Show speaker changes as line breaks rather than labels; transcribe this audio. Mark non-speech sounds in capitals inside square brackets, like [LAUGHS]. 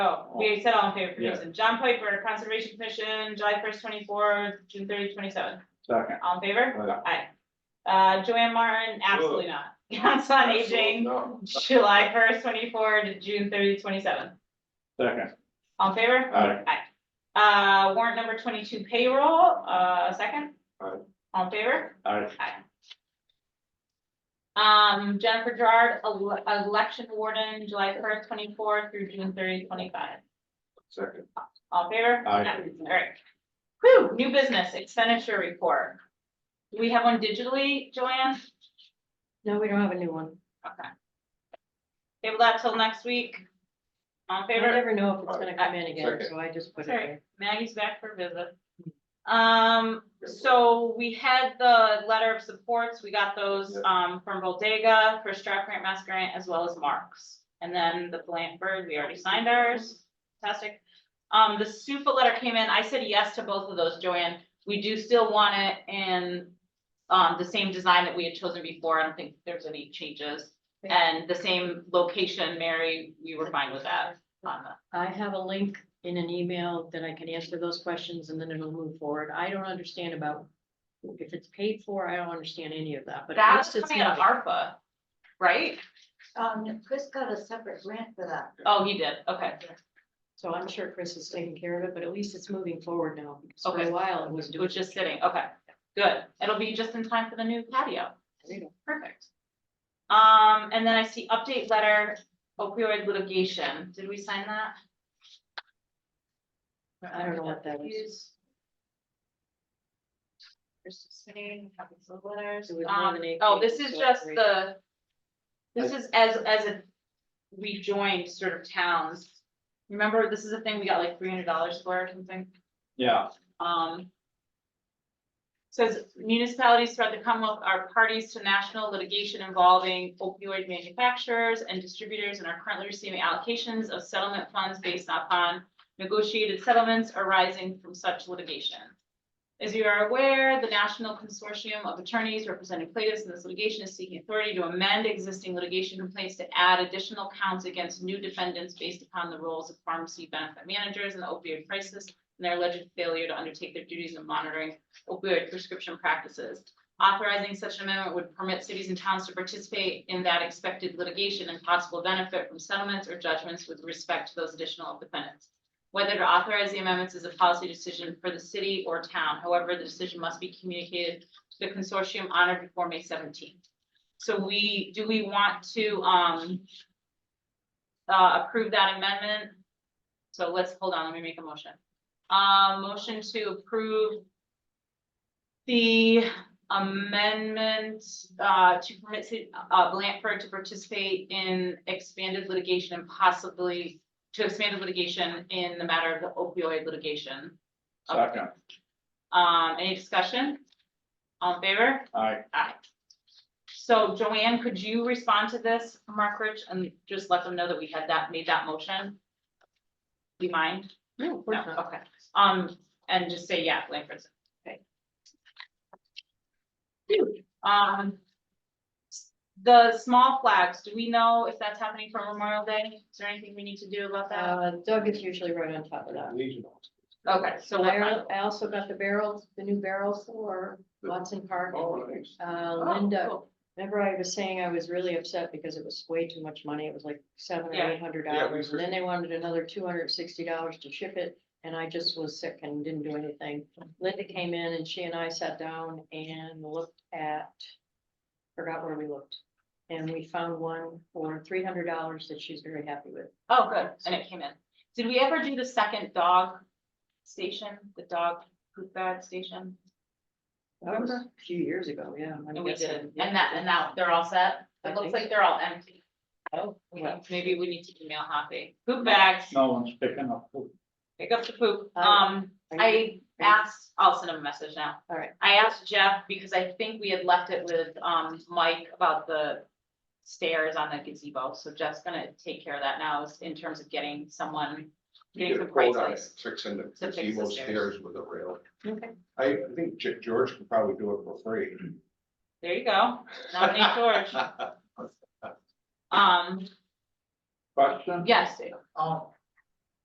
Oh, we said all in favor for
Yeah.
Jason. John Piper, Conservation Commission, July first, twenty-four, June 30th, 27.
Second.
All in favor?
Aye.
Aye. Uh, Joanne Martin, absolutely not. [LAUGHS] Council on Aging, [LAUGHS]
No.
July first, twenty-four to June 30th, 27.
Second.
All in favor?
Aye.
Uh, warrant number twenty-two payroll, uh, second?
Aye.
All in favor?
Aye.
Um, Jennifer Gerard, ele- election warden, July first, twenty-four through June 30th, 25.
Second.
All in favor?
Aye.
Alright. Whew, new business expenditure report. Do we have one digitally, Joanne?
No, we don't have a new one.
Okay. Table that till next week. All in
I
favor?
never know if it's gonna come in again,
Second.
so I just put it
Oh, Sorry.
there.
Maggie's back for a visit. Um, so we had the letter of supports, we got those, um, from Bodega, for Strat Grant, Mass Grant, as well as Marks. And then the Blant Bird, we already signed ours, fantastic. Um, the SUFA letter came in, I said yes to both of those, Joanne, we do still want it in, um, the same design that we had chosen before, I don't think there's any changes. And the same location, Mary, we were fine with that on the,
I have a link in an email that I can answer those questions and then it'll move forward. I don't understand about if it's paid for, I don't understand any of that, but at
that's
least it's
coming out of
not.
ARPA, right?
Um, Chris got a separate grant for that.
Oh, he did, okay,
So I'm sure Chris is taking care of it, but at least it's moving forward now. because For
Okay.
a while, it was
it
doing.
was just sitting, okay, good, it'll be just in time for the new patio, perfect. Um, and then I see update letter opioid litigation, did we sign that?
I don't know what that was.
Use. There's just many copies of letters,
It was more
um,
than eight
oh, this
pages,
is
so
just
great.
the. This is as, as if we joined sort of towns, remember, this is a thing we got like three hundred dollars for or something?
Yeah,
Um. Says municipalities throughout the Commonwealth are parties to national litigation involving opioid manufacturers and distributors and are currently receiving allocations of settlement funds based upon negotiated settlements arising from such litigation. As you are aware, the National Consortium of Attorneys representing plaintiffs in this litigation is seeking authority to amend existing litigation complaints to add additional counts against new defendants based upon the roles of pharmacy benefit managers in the opioid crisis and their alleged failure to undertake their duties of monitoring opioid prescription practices. Authorizing such an amendment would permit cities and towns to participate in that expected litigation and possible benefit from settlements or judgments with respect to those additional defendants. Whether to authorize the amendments is a policy decision for the city or town. However, the decision must be communicated to the consortium on or before May seventeenth. So we, do we want to, um, uh, approve that amendment? So let's, hold on, let me make a motion. Uh, motion to approve the amendment, uh, to permit, ci- uh, Blanford to participate in expanded litigation and possibly to expand the litigation in the matter of the opioid litigation.
second.
Um, any discussion? All in favor?
Aye.
Aye. So Joanne, could you respond to this, Mark Rich, and just let them know that we had that, made that motion? Do you mind?
No, of course
No,
not.
okay, um, and just say, yeah, Langford's, okay. Um. The small flags, do we know if that's happening for Memorial Day? Is there anything we need to do about that?
Uh, Doug is usually right on top of that.
Regional.
Okay, so
I,
what,
al- I also got the barrels, the new barrels for Watson Park.
Oh, nice.
Uh,
Oh,
Linda,
cool.
remember I was saying I was really upset because it was way too much money. It was like seven
Yeah.
or eight hundred
Yeah, we
dollars. And then they wanted another two hundred and sixty dollars to ship it. And I just was sick and didn't do anything. Linda came in and she and I sat down and looked at, forgot where we looked. And we found one for three hundred dollars that she's very happy with.
oh, good, and it came in. Did we ever do the second dog station, the dog poop bag station?
That was a few years ago, yeah. I'm
And we
guessing,
did,
yeah.
and that, and now they're all set,
I
it looks
think
like
so.
they're all empty,
Oh, well.
maybe we need to email Hoppy, poop bags,
No one's picking up. poop.
pick up the poop,
I-
um,
are you-
I asked, I'll send him a message now.
All right.
I asked Jeff, because I think we had left it with, um, Mike about the stairs on the gazebo, so Jeff's gonna take care of that now, is in terms of getting someone,
You
getting
get a
some
quote on
prices.
it, Fixing the
the
gazebo
stairs.
stairs with a rail.
Okay.
I I think Ge- George could probably do it for free.
There you go, nominate
[LAUGHS]
George, um,
Question?
yes, Dave.
Oh,